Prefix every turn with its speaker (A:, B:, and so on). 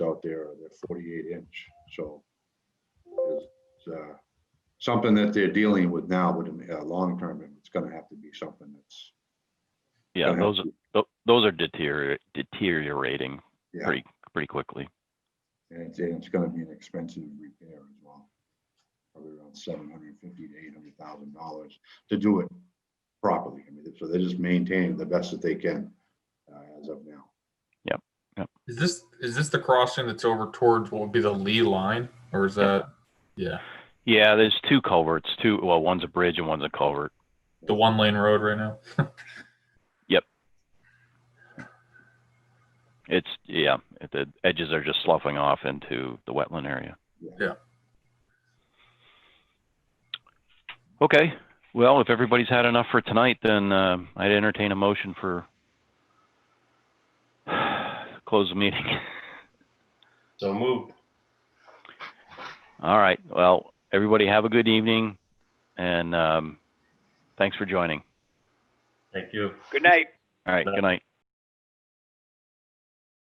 A: forty-eight inch, so. it's, uh, Something that they're dealing with now, but in, uh, long term, it's gonna have to be something that's.
B: Yeah,
A: gonna have
B: those,
A: to-
B: tho- those are deterior- deteriorating
A: Yeah.
B: pretty, pretty quickly.
A: And it's, and it's gonna be an expensive repair as well. Probably around seven hundred and fifty to eight hundred thousand dollars to do it properly. I mean, so they're just maintaining the best that they can, uh, as of now.
C: Is this, is this the crossing that's over towards what would be the Lee line or is that, yeah,
B: Yeah, there's two culverts, two, well, one's a bridge and one's a culvert.
C: the one lane road right now?
B: It's, yeah, it- the edges are just sloughing off into the wetland area.
C: Yeah.
B: Okay, well, if everybody's had enough for tonight, then um, I'd entertain a motion for close the meeting.
D: So moved.
B: All right, well, everybody have a good evening and um, thanks for joining.
D: Thank you.
E: Good night.
B: All right, good night.